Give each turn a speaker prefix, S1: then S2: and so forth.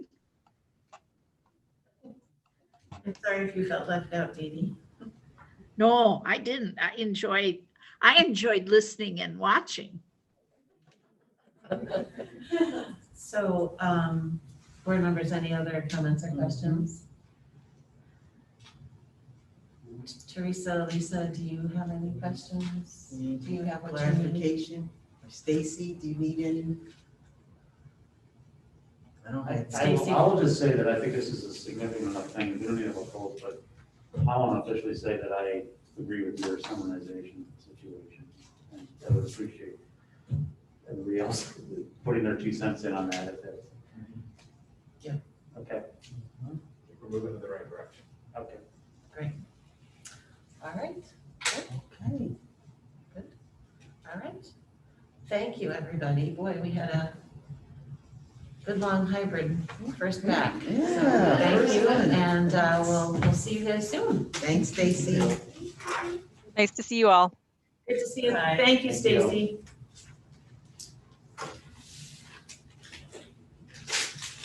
S1: I'm sorry if you felt left out, Dee Dee.
S2: No, I didn't. I enjoyed, I enjoyed listening and watching.
S1: So, um, board members, any other comments or questions? Teresa, Lisa, do you have any questions? Do you have what you need?
S3: Clarification, Stacy, do you need any? I don't have.
S4: I will, I will just say that I think this is a significant enough thing, we don't need a vote, but I want to officially say that I agree with your summarization situation. And I would appreciate everybody else putting their two cents in on that if that's.
S3: Yeah.
S4: Okay,
S5: We're moving in the right direction.
S4: okay.
S1: All right,
S3: Okay.
S1: all right. Thank you, everybody. Boy, we had a good long hybrid first back. So
S3: Yeah,
S1: Thank
S3: first
S1: you,
S3: one.
S1: and, uh, we'll, we'll see you guys soon.
S3: Thanks, Stacy.
S6: Nice to see you all.
S1: Good to see you. Thank you,
S4: Stacy.